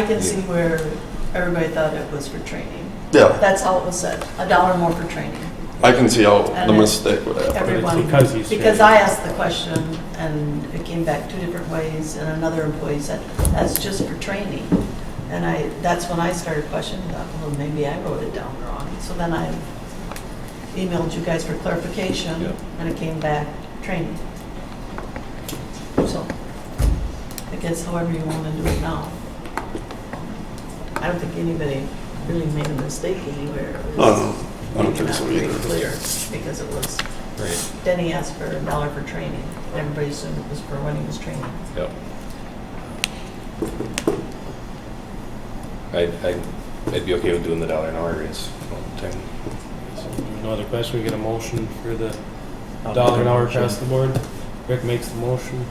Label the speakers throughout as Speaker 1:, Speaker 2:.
Speaker 1: I can see where everybody thought it was for training.
Speaker 2: Yeah,
Speaker 1: That's all it was said, a dollar more for training.
Speaker 2: I can see how the
Speaker 1: And
Speaker 2: mistake would happen.
Speaker 1: Everyone,
Speaker 3: because he's
Speaker 1: because
Speaker 3: training.
Speaker 1: I asked the question and it came back two different ways and another employee said, that's just for training. And I, that's when I started questioning, thought, well, maybe I wrote it down wrong. So then I emailed you guys for clarification
Speaker 2: Yeah.
Speaker 1: and it came back, training. So I guess however you want to do it now. I don't think anybody really made a mistake anywhere. It was-
Speaker 2: No, I don't think so
Speaker 1: Maybe not
Speaker 2: either.
Speaker 1: very clear, because it was,
Speaker 4: Right,
Speaker 1: Denny asked for a dollar for training, and everybody assumed it was for when he was training.
Speaker 4: yep. I, I, I'd be okay with doing the dollar an hour raise.
Speaker 3: So, No other question, we get a motion for the dollar an hour across the board. Rick makes the motion,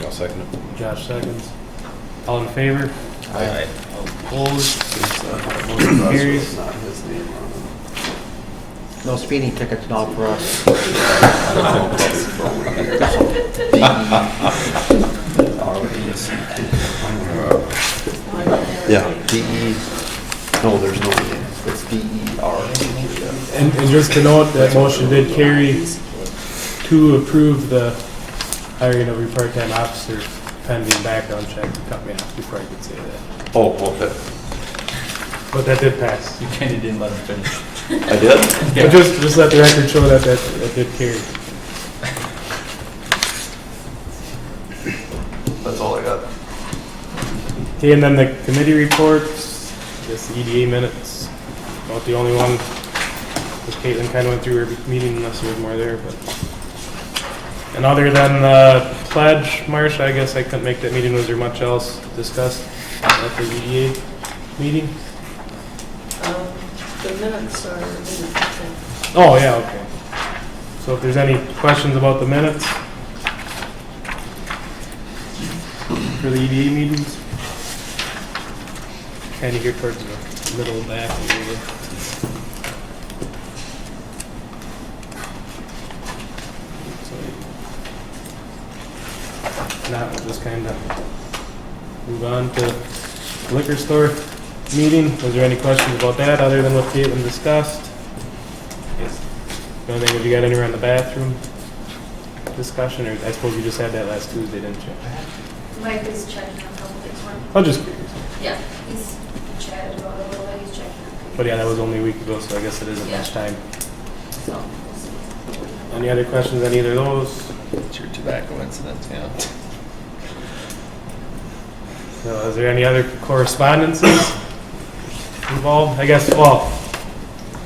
Speaker 4: I'll second it.
Speaker 3: Josh seconds. All in favor?
Speaker 4: Aye.
Speaker 3: Opposed? Motion carries.
Speaker 5: No speeding tickets, not for us.
Speaker 2: Yeah,
Speaker 5: E.
Speaker 2: DE, no, there's no E, it's DER.
Speaker 3: And, and just to note, that motion did carry to approve the hiring of your part-time officer pending background check. You Cut me off before I could say that.
Speaker 2: Oh, okay,
Speaker 3: But that did pass.
Speaker 6: You kind of didn't let him finish.
Speaker 2: I did?
Speaker 3: But just, just let the record show that that, that did carry.
Speaker 2: That's all I got.
Speaker 3: Okay, and then the committee reports, I guess the EDA minutes, not the only one. Because Caitlin kind of went through her meeting unless there was more there, but. And other than the pledge, Marsh, I guess I couldn't make that meeting. Was there much else discussed at the EDA meeting?
Speaker 1: Um, The minutes are, I
Speaker 3: Oh, yeah, okay. So if there's any questions about the minutes? For the EDA meetings? Kind of here towards the middle back. area. So, Now, we'll just kind of move on to liquor store meeting. Was there any questions about that, other than what Caitlin discussed? Yes. The only thing, have you got anywhere on the bathroom discussion, or I suppose you just had that last Tuesday, didn't you?
Speaker 7: Mike is checking on a couple things for me.
Speaker 3: I'm just curious.
Speaker 7: Yeah. He's chatted about it a little bit, he's checking on.
Speaker 3: But yeah, that was only a week ago, so I guess it isn't much time.
Speaker 7: So, we'll see.
Speaker 3: Any other questions on either of those?
Speaker 6: It's your tobacco incident, yeah.
Speaker 3: So is there any other correspondences involved? I guess, well,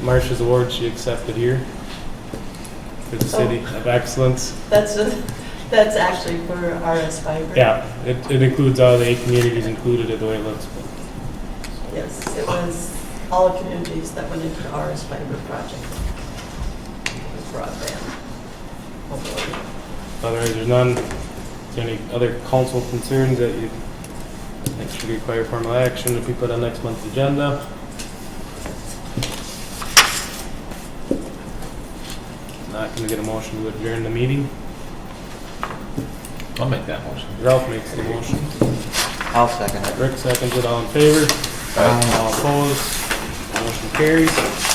Speaker 3: Marcia's award she accepted here for the City of Excellence.
Speaker 1: that's, a- that's actually for RS Fiber.
Speaker 3: Yeah, it, it includes all the eight communities included, the way it looks. but-
Speaker 1: Yes, it was all communities that went into the RS Fiber project. With Broadband. Hopefully.
Speaker 3: Otherwise, there's none. Is there any other council concerns that you think should require formal action to be put on next month's agenda? Not gonna get a motion to adjourn the meeting.
Speaker 6: I'll make that motion.
Speaker 3: Ralph makes the motion.
Speaker 5: I'll second it.
Speaker 3: Rick seconds it. All in favor? All opposed? Motion carries.